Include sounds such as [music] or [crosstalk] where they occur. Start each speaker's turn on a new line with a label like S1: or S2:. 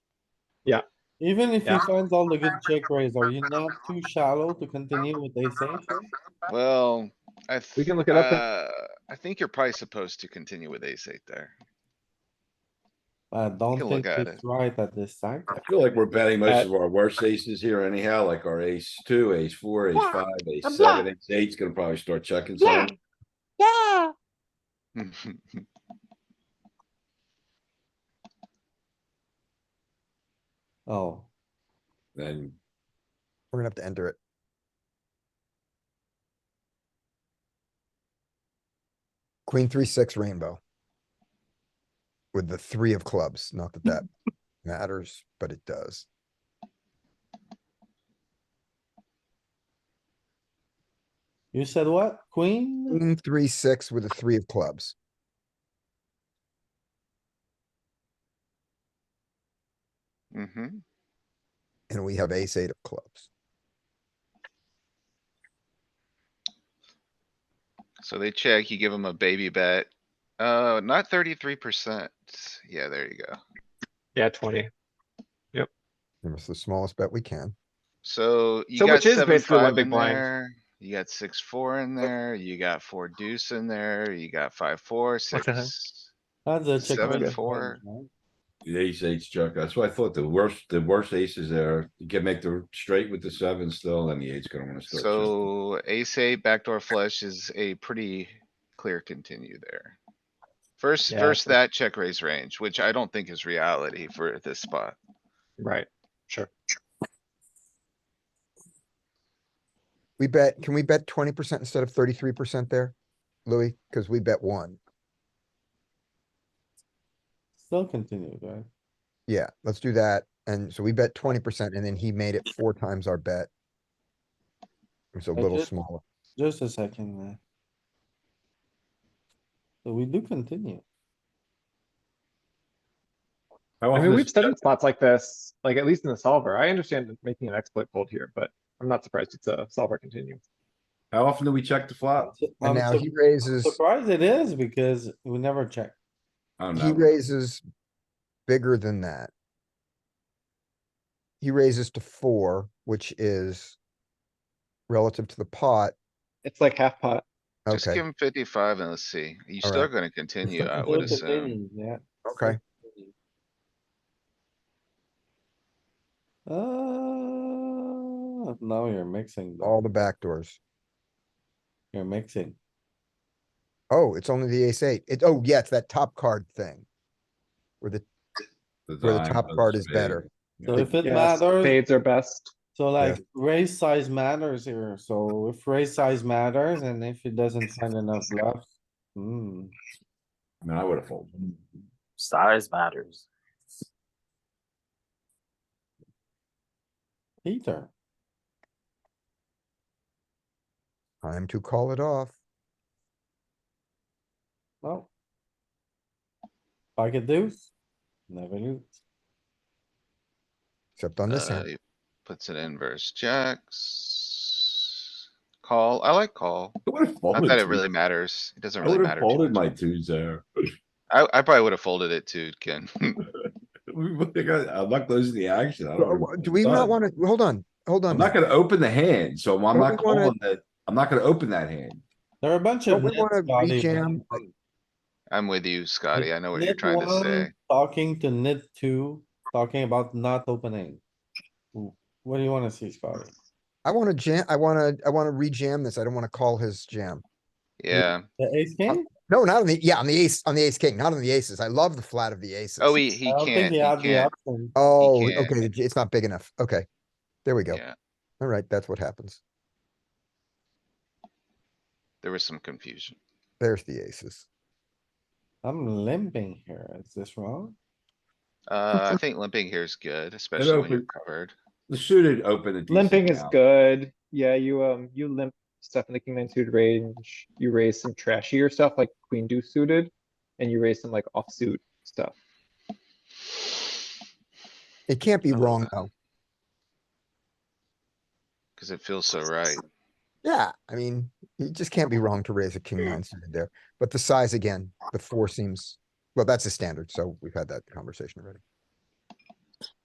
S1: Yeah.
S2: Even if he
S1: Yeah.
S2: finds all the good check raise, are you not too shallow to continue with ace eight? here?
S3: Well, I. th-
S1: We can look it up then.
S3: uh, I think you're probably supposed to continue with ace eight there.
S2: I don't
S3: can
S2: think
S3: look at
S2: it's right at this time.
S4: I feel like we're betting most
S2: Uh,
S4: of our worst aces here anyhow, like our ace two, ace four, ace
S5: Yeah,
S4: five, ace
S5: I'm
S4: seven, ace eight's gonna probably start checking
S5: Yeah.
S4: some.
S5: Yeah,
S3: Mm-hmm.
S2: Oh,
S4: Then
S6: We're gonna have to enter it. Queen, three, six rainbow. With the three of clubs, not that that matters, but it does.
S2: you said what? Queen?
S6: Queen, three, six with the three of clubs.
S3: Mm-hmm.
S6: And we have ace eight of clubs.
S3: So they check, you give them a baby bet. Uh, not thirty-three percent. Yeah, there you go.
S1: Yeah, twenty.
S6: And It's the smallest bet we can.
S3: So you
S1: So
S3: got
S1: which is
S3: seven,
S1: basically one
S3: five
S1: big
S3: in
S1: blind.
S3: there. You got six, four in there. You got four deuce in there. You got five, four,
S1: What the heck?
S3: six.
S2: That's a check.
S3: Seven,
S2: raise
S3: four.
S2: range, right?
S4: the ace eight's check. That's why I thought the worst, the worst aces there, you can make the straight with the seven still, then the eight's gonna wanna start. checking.
S3: So ace eight backdoor flush is a pretty clear continue there. First,
S1: Yeah,
S3: first that check raise range, which I don't think is reality for this spot.
S1: Right. Sure.
S6: We bet, can we bet twenty percent instead of thirty-three percent there? Louis, because we bet one.
S2: Still continue, right?
S6: Yeah, let's do that. And so we bet twenty percent and then he made it four times our bet. It's a
S2: I
S6: little
S2: just-
S6: smaller.
S2: Just a second there. So we do continue.
S1: I
S4: How often
S1: mean,
S4: is
S1: we've
S4: it
S1: studied spots like this, like at least in the solver. I understand making an exploit fold here, but I'm not surprised it's a solver continue.
S4: checked? How often do we check the flop?
S6: Uh, And
S3: Um,
S2: I'm
S6: now
S2: sur-
S6: he raises,
S2: Surprised it is because we never check.
S4: I don't
S6: he
S3: um,
S4: know.
S6: raises bigger than that. He raises to four, which is relative to the pot.
S1: It's like half pot.
S3: Just give
S6: Okay,
S3: him fifty-five and let's see. You
S6: All
S3: still
S6: right.
S3: gonna continue, I
S2: Still
S3: would assume.
S2: continue, Yeah.
S6: okay.
S2: Uh, now you're mixing, though.
S6: All the back doors.
S2: you're mixing.
S6: Oh, it's only the ace eight. It, oh, yeah, it's that top card thing. Where the, where the
S4: dime,
S6: top
S4: the
S6: card is
S4: spade.
S6: better.
S2: So if it
S1: Yes,
S2: matters,
S1: Spades are best.
S2: so
S6: Yeah.
S2: like raise size matters here, so if raise size matters and if it doesn't find enough bluffs. Hmm,
S4: I mean, I would have folded.
S7: Size matters.
S2: Peter,
S6: Time to call it off.
S2: no. Pocket deuce, never knew.
S6: Except on this
S3: Uh,
S6: hand.
S3: he Puts it in versus jacks. Call, I like call.
S4: I would have
S3: Not
S4: folded.
S3: that it
S4: too.
S3: really matters. It doesn't
S4: I
S3: really
S4: would have
S3: matter. too
S4: folded
S3: much.
S4: my twos there. [laughs]
S3: I, I probably would have folded it too, Ken. [laughs]
S4: We- we got- I'm not closing the action. I
S6: Uh,
S4: don't know
S6: uh,
S4: what
S6: Do
S4: I've
S6: we not
S4: done.
S6: wanna, hold on, hold on.
S4: I'm not
S6: Matt.
S4: gonna open the hand, so I'm
S6: Don't
S4: not
S6: we wanna-
S4: calling that, I'm not gonna open that hand.
S2: There are a bunch
S6: Don't
S2: of.
S6: we
S2: nits,
S6: wanna
S2: Scotty, but-
S6: rejam?
S3: I'm with you, Scotty. I know what you're
S2: Nit
S3: trying to
S2: one,
S3: say.
S2: Talking to nit two, talking about not opening. Wh- What do you wanna see, Scotty?
S6: I wanna jam, I wanna, I wanna rejam this. I don't wanna call his jam.
S3: Yeah.
S2: The ace king?
S6: No, not on the, yeah, on the ace, on the ace king, not on the aces. I love the flat of the aces.
S3: Oh, he, he
S2: I don't think
S3: can't,
S2: he
S3: he
S2: had the
S3: can't.
S2: option.
S6: Oh,
S3: can't.
S6: okay, the j- it's not big enough. Okay. There we go.
S3: Yeah,
S6: Alright, that's what happens.
S3: there was some confusion.
S6: There's the aces.
S2: I'm limping here. Is this wrong?
S3: Uh, I think limping here is good, especially when you're
S4: open-
S3: covered.
S4: The suited open. a decent
S1: Limping is
S4: amount.
S1: good. Yeah, you, um, you limp stuff in the king nine suited range. You raise some trashier stuff like queen deuce suited and you raise some like offsuit stuff.
S6: It can't be
S3: I love
S6: wrong
S3: that.
S6: though.
S3: Cause it feels so right.
S6: Yeah, I mean, you just can't be wrong to raise a king nine suited there, but the size again, the four seems, well, that's a standard, so we've had that conversation already.